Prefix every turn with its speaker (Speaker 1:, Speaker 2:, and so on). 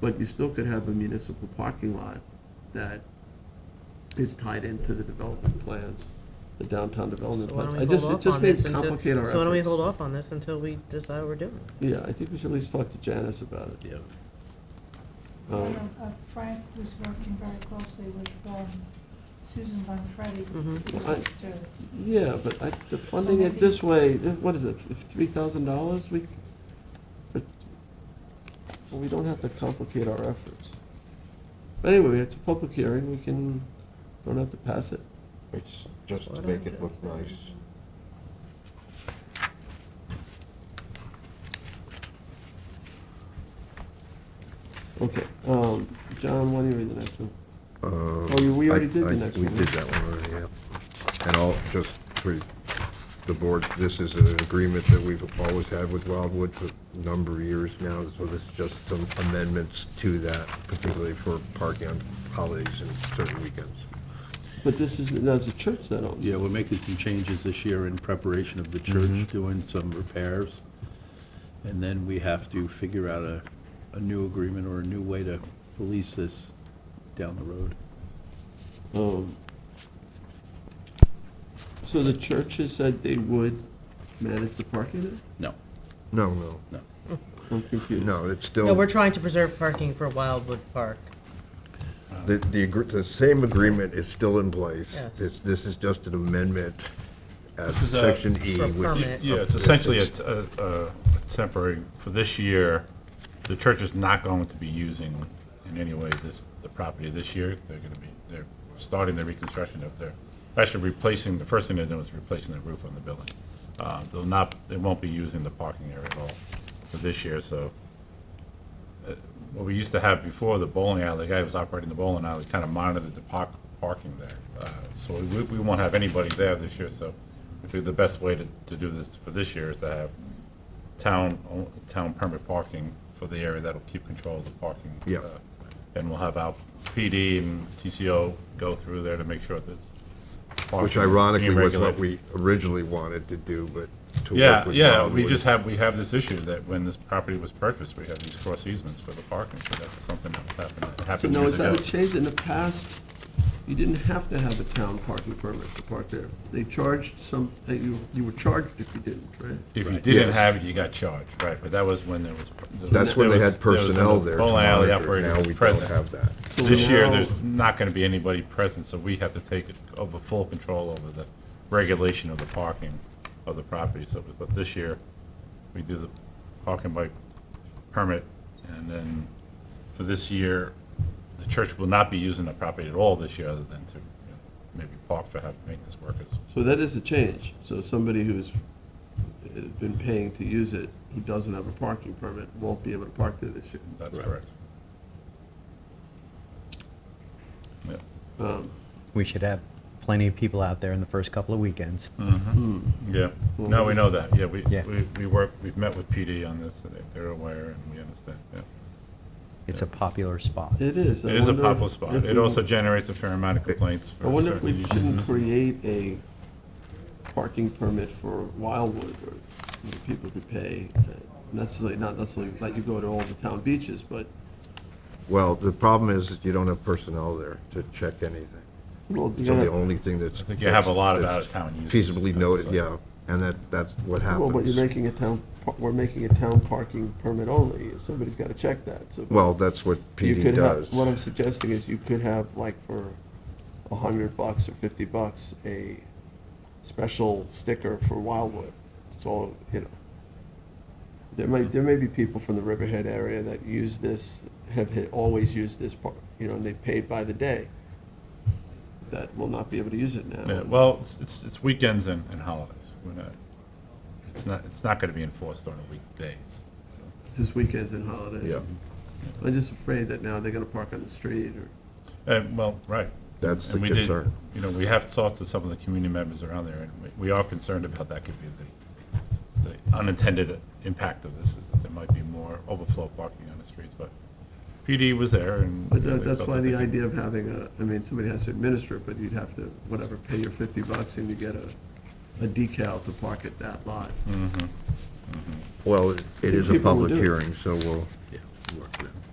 Speaker 1: But you still could have a municipal parking lot that is tied into the development plans, the downtown development
Speaker 2: So why
Speaker 1: plans.
Speaker 2: don't
Speaker 1: I
Speaker 2: we
Speaker 1: just,
Speaker 2: hold
Speaker 1: it
Speaker 2: off
Speaker 1: just
Speaker 2: on
Speaker 1: may
Speaker 2: this until-
Speaker 1: complicate our efforts.
Speaker 2: So why don't we hold off on this until we decide what we're doing?
Speaker 1: Yeah, I think we should at least talk to Janice about it.
Speaker 3: Yeah.
Speaker 4: I
Speaker 1: Um,
Speaker 4: know, uh, Frank was working very closely with um, Susan Bonfredi.
Speaker 2: Mhm.
Speaker 1: Well, I-
Speaker 4: to-
Speaker 1: Yeah, but I, the funding it this way, th- what is it, three thousand dollars? We, for- well, we don't have to complicate our efforts. But anyway, it's a public hearing, we can, don't have to pass it.
Speaker 5: It's just
Speaker 2: Why
Speaker 5: to
Speaker 2: don't
Speaker 5: make
Speaker 2: we
Speaker 5: it
Speaker 2: do
Speaker 5: look
Speaker 2: this?
Speaker 5: nice.
Speaker 1: Okay, um, John, why don't you read the next one?
Speaker 5: Oh,
Speaker 1: you- we already did the next one,
Speaker 5: We did that one, already, yeah. And I'll, just for the board, this is an agreement that we've always had with Wildwood for a number of years now, so this is just some amendments to that, particularly for parking on holidays and certain weekends.
Speaker 1: But this is, that's a church that owns
Speaker 3: Yeah,
Speaker 1: it.
Speaker 3: we're making some changes this year in preparation of the church doing some repairs. And then we have to figure out a, a new agreement or a new way to police this down the road.
Speaker 1: Um, So the church has said they would manage the parking there?
Speaker 3: No,
Speaker 5: No, no,
Speaker 1: I'm confused.
Speaker 5: no, it's still.
Speaker 2: No, we're trying to preserve parking for Wildwood Park.
Speaker 5: The, the, agr- the same agreement is still in place.
Speaker 2: Yes.
Speaker 5: This, this is just an amendment at
Speaker 6: is a-
Speaker 5: section E,
Speaker 2: For a
Speaker 5: which.
Speaker 2: permit.
Speaker 6: Yeah, it's essentially a, a- a temporary, for this year, the church is not going to be using in any way this, the property this year. They're gonna be, they're starting the reconstruction of their, actually replacing, the first thing they're doing is replacing the roof on the building. Uh, They'll not, they won't be using the parking area at all for this year, so. uh, What we used to have before, the bowling alley, the guy who was operating the bowling alley kind of monitored the park, parking there. Uh, So we, we won't have anybody there this year, so I think the best way to, to do this for this year is to have town, own- town permit parking for the area that'll keep control of the parking.
Speaker 5: Yeah.
Speaker 6: uh, And we'll have our PD and TCO go through there to make sure that.
Speaker 5: Which
Speaker 6: parking is being
Speaker 5: ironically was what
Speaker 6: regulated.
Speaker 5: we originally wanted to do, but to work
Speaker 6: Yeah,
Speaker 5: with
Speaker 6: yeah, we
Speaker 5: Wildwood.
Speaker 6: just have, we have this issue that when this property was purchased, we have these cross easements for the parking, so that's something that happened, that
Speaker 1: So
Speaker 6: happened
Speaker 1: now, is
Speaker 6: years
Speaker 1: that
Speaker 6: ago.
Speaker 1: a change? In the past, you didn't have to have a town parking permit to park there. They charged some, uh, you, you were charged if you didn't, right?
Speaker 6: If you didn't
Speaker 5: yes.
Speaker 6: have it, you got charged, right, but that was when there was.
Speaker 5: That's when
Speaker 6: there
Speaker 5: they
Speaker 6: was-
Speaker 5: had
Speaker 6: there was
Speaker 5: personnel
Speaker 6: the
Speaker 5: there. to
Speaker 6: Bowling alley
Speaker 5: monitor.
Speaker 6: operator
Speaker 5: Now
Speaker 6: was
Speaker 5: we don't
Speaker 6: present.
Speaker 5: have that.
Speaker 1: So
Speaker 6: This year,
Speaker 1: now-
Speaker 6: there's not gonna be anybody present, so we have to take it over full control over the regulation of the parking of the property, so we thought this year, we do the parking by permit, and then for this year, the church will not be using the property at all this year, other than to you know, maybe park for having maintenance workers.
Speaker 1: So that is a change. So somebody who's uh, been paying to use it, who doesn't have a parking permit, won't be able to park there this year.
Speaker 6: That's correct. Yeah.
Speaker 1: Um,
Speaker 7: We should have plenty of people out there in the first couple of weekends.
Speaker 6: Yeah,
Speaker 1: Well,
Speaker 6: no, we
Speaker 1: we'll
Speaker 6: know that, yeah, we,
Speaker 7: Yeah.
Speaker 6: we, we work, we've met with PD on this, and they're aware, and we understand, yeah.
Speaker 7: It's a popular spot.
Speaker 1: It is. I
Speaker 6: It is a
Speaker 1: wonder
Speaker 6: popular spot,
Speaker 1: if
Speaker 6: it
Speaker 1: we-
Speaker 6: also generates a fair amount of complaints
Speaker 1: I
Speaker 6: for
Speaker 1: wonder if
Speaker 6: certain
Speaker 1: we
Speaker 6: users.
Speaker 1: shouldn't create a parking permit for Wildwood where you know, people could pay, uh, necessarily, not necessarily let you go to all the town beaches, but,
Speaker 5: Well, the problem is that you don't have personnel there to check anything.
Speaker 1: well, you
Speaker 5: So
Speaker 1: gotta
Speaker 5: the only thing that's.
Speaker 6: I think you have a lot of
Speaker 5: that's
Speaker 6: out-of-town users.
Speaker 5: Feasibly noted,
Speaker 6: So-
Speaker 5: yeah, and that, that's what
Speaker 1: Well, but you're
Speaker 5: happens.
Speaker 1: making a town, par- we're making a town parking permit only, somebody's gotta check that, so.
Speaker 5: Well, that's what
Speaker 1: you
Speaker 5: PD
Speaker 1: could have-
Speaker 5: does.
Speaker 1: What I'm suggesting is you could have, like, for a hundred bucks or fifty bucks, a special sticker for Wildwood, it's all, you know. There might, there may be people from the Riverhead area that use this, have hit- always used this part, you know, and they paid by the day, that will not be able to use it now.
Speaker 6: Yeah, well, it's, it's, it's weekends and, and holidays, we're not, it's not, it's not gonna be enforced on the weekdays. so.
Speaker 1: It's just weekends and holidays.
Speaker 5: Yeah.
Speaker 1: I'm just afraid that now they're gonna park on the street, or.
Speaker 6: And, Uh, well, right.
Speaker 5: That's
Speaker 6: And
Speaker 5: the
Speaker 6: we did-
Speaker 5: concern.
Speaker 6: You know, we have talked to some of the community members around there, and we- we are concerned about that could be the, the unintended impact of this, is that there might be more overflow parking on the streets, but PD was there and.
Speaker 1: But
Speaker 6: they
Speaker 1: that- that's
Speaker 6: felt
Speaker 1: why
Speaker 6: that
Speaker 1: the
Speaker 6: they could-
Speaker 1: idea of having a, I mean, somebody has to administer it, but you'd have to, whatever, pay your fifty bucks and you get a, a decal to park at that lot.
Speaker 6: Mm-hmm.
Speaker 5: Well, it it is a
Speaker 1: People will
Speaker 5: public
Speaker 1: do it.
Speaker 5: hearing, so we'll work with it.